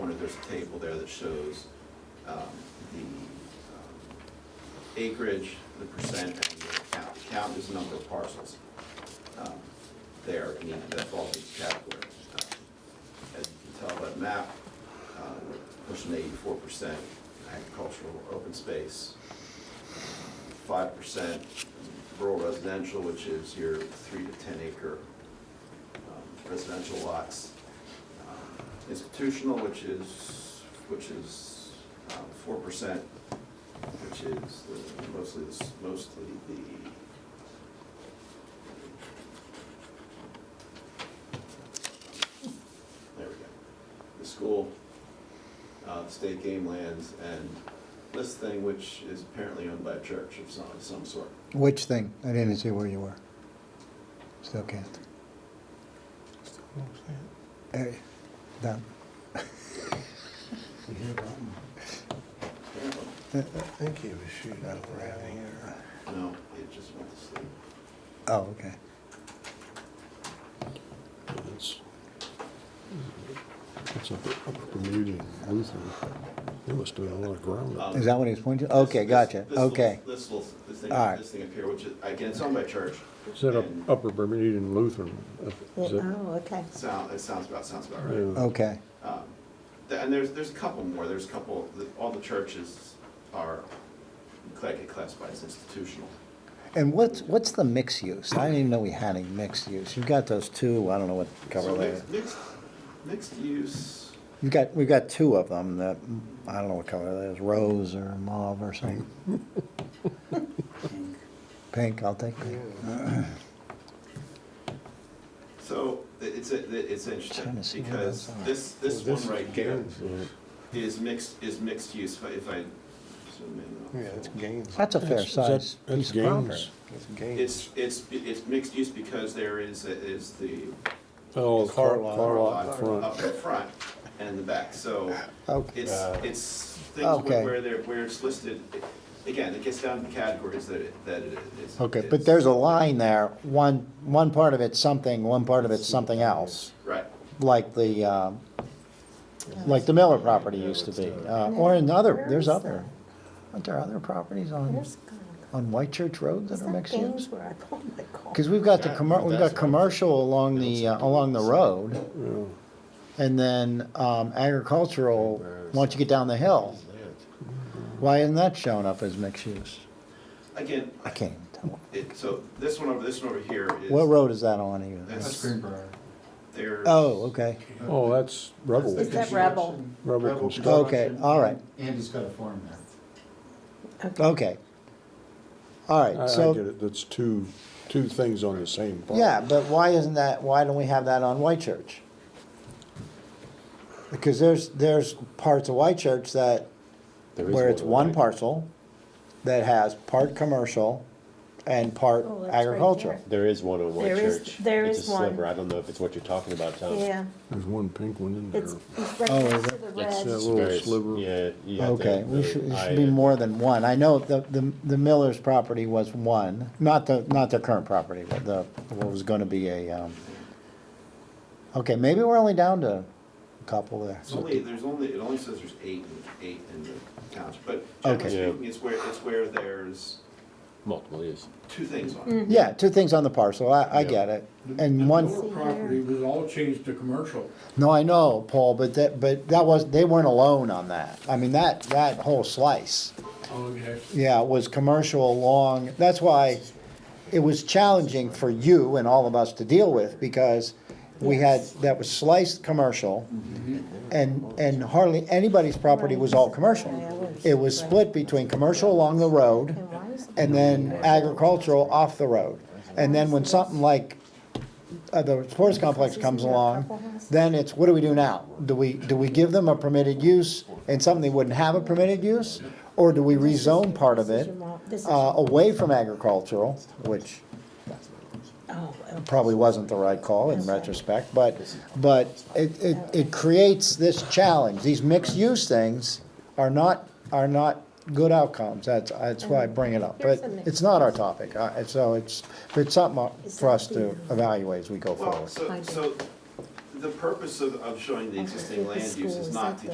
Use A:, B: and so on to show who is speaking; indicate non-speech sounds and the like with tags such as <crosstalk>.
A: there's a table there that shows um, the um, acreage, the percent, and the count. The Count is the number of parcels um, there, in each- that falls in each category. Uh, As you can tell by the map, um, pushing eighty-four percent agricultural open space, five percent rural residential, which is your three to ten acre um, residential lots. Um, Institutional, which is, which is um, four percent, which is the- mostly, the s- mostly the there we go, the school, uh, state game lands, and this thing, which is apparently owned by a church of some, some sort.
B: Which thing? I didn't see where you were. Still can't. Hey, down.
A: Apparently.
C: I think he was shooting over out of here.
A: No, it just went to sleep.
B: Oh, okay.
D: It's it's upper upper Bermuda and Lutheran. They must have done a lot of ground up.
B: Is that what he's pointing to? Okay,
A: This-
B: gotcha.
A: this- this little-
B: Okay.
A: This little, this thing,
B: All right.
A: this thing up here, which is, again, it's owned by church.
D: It's that up-
A: and
D: upper Bermuda and Lutheran?
E: Yeah,
D: Is that-
E: Oh, okay.
A: Sound, it sounds about, sounds about right.
D: yeah.
B: Okay.
A: Um, th- And there's, there's a couple more, there's a couple, the- all the churches are, cla- get classified as institutional.
B: And what's, what's the mixed use? I didn't even know we had any mixed use. You've got those two, I don't know what cover
A: So
B: layer.
A: mixed- Mixed, mixed use,
B: You've got, we've got two of them that, I don't know what color that is, rose or mauve
A: <laughs>
B: or something. Pink, I'll take pink.
A: so it- it's, a- it's interesting,
B: Trying to see what
A: because
B: those are.
A: this, this
D: Well,
A: one right here
D: Gaines, uh,
A: is mixed, is mixed use, if I- if I zoom in.
C: Yeah, it's Gaines.
B: That's a fair
D: That's- that's-
B: size
D: that's
B: piece of property.
D: Gaines.
C: It's Gaines.
A: It's, it's, it's mixed use because there is, is the
D: Oh, the car
C: Car lot.
D: car lot
A: lot
D: front.
A: up in front and in the back, so
B: Okay.
A: it's,
C: Uh,
A: it's things where
B: Okay.
A: where they're, where it's listed. Again, it gets down to categories that it, that it is.
B: Okay,
A: is-
B: but there's a line there, one, one part of it's something, one part of it's something else,
A: Right,
B: like the, um, like the Miller property used to be, uh, or in other, there's other, aren't there other properties on,
E: Where's God?
B: on White Church Road that
E: Is
B: are
E: that
B: mixed use?
E: Gainsborough? Oh, my God.
B: Because we've got the
D: That-
B: commer, we've
D: that's
B: got
D: what-
B: commercial along the, uh, along the road,
D: Yeah.
B: and then um, agricultural, once you get down the hill. Why isn't that showing up as mixed use?
A: again,
B: I can't even tell.
A: it, so this one over, this one over here is.
B: What road is that on even?
A: That's Greenbrier. There's.
B: Oh, okay,
D: Oh, that's rubble,
E: Is that Rebel?
D: rubble construction.
B: okay, all right.
F: Andy's got a farm there.
B: Okay. All
D: I
B: right,
D: I get
B: so,
D: it, that's two, two things on the same part.
B: yeah, but why isn't that, why don't we have that on White Church? Because there's, there's parts of White Church that,
D: There is
B: where it's
D: one,
B: one
D: right?
B: parcel that has part commercial and part
E: Oh, that's right
B: agricultural.
E: there.
G: There is one on White
E: There is-
G: Church.
E: there
G: It's
E: is
G: a
E: one.
G: sliver. I don't know if it's what you're talking about, Tom.
E: Yeah,
D: There's one pink one in there.
E: it's, it's right
B: Oh,
E: next
B: is
E: to the
G: That's
D: That
E: red.
D: little
G: very-
D: sliver.
G: Yeah. you have to
B: Okay,
G: have
B: we
G: the
B: should, it
G: eye
B: should be
G: and-
B: more than one. I know the, the, the Miller's property was one, not the, not the current property, but the, what was gonna be a, um, okay, maybe we're only down to a couple there.
A: It's only, there's only, it only says there's eight, in- eight in the township, but generally
B: Okay.
G: Yeah.
A: speaking, it's where, it's where there's
G: Multiple, yes.
A: two things on
E: Mm.
A: it.
B: Yeah, two things on the parcel, I, I get it, and
H: The
B: one,
H: Miller property was all changed to commercial.
B: no, I know, Paul, but that, but that was, they weren't alone on that. I mean, that, that whole slice,
H: Oh, Okay.
B: yeah, was commercial along, that's why it was challenging for you and all of us to deal with, because we had, that was sliced commercial, and, and hardly anybody's property was all commercial. It was split between commercial along the road,
E: And why is-
B: and then agricultural off the road. And then when something like uh, the sports complex comes along, then it's, what do we do now? Do we, do we give them a permitted use and something they wouldn't have a permitted use? Or do we rezone part of it
E: This is-
B: uh, away from agricultural, which
E: Oh, okay.
B: probably wasn't the right call in retrospect, but, but it, it, it creates this challenge. These mixed-use things are not, are not good outcomes, that's, that's why I bring it up. But it's not our topic, uh, and so it's, it's something for us to evaluate as we go
A: Well,
B: forward.
A: so,
E: Find it.
A: so the purpose of, of showing the
E: Okay,
A: existing
E: the
A: land use
E: school,
A: is
E: is
A: not
E: that
A: to
E: the-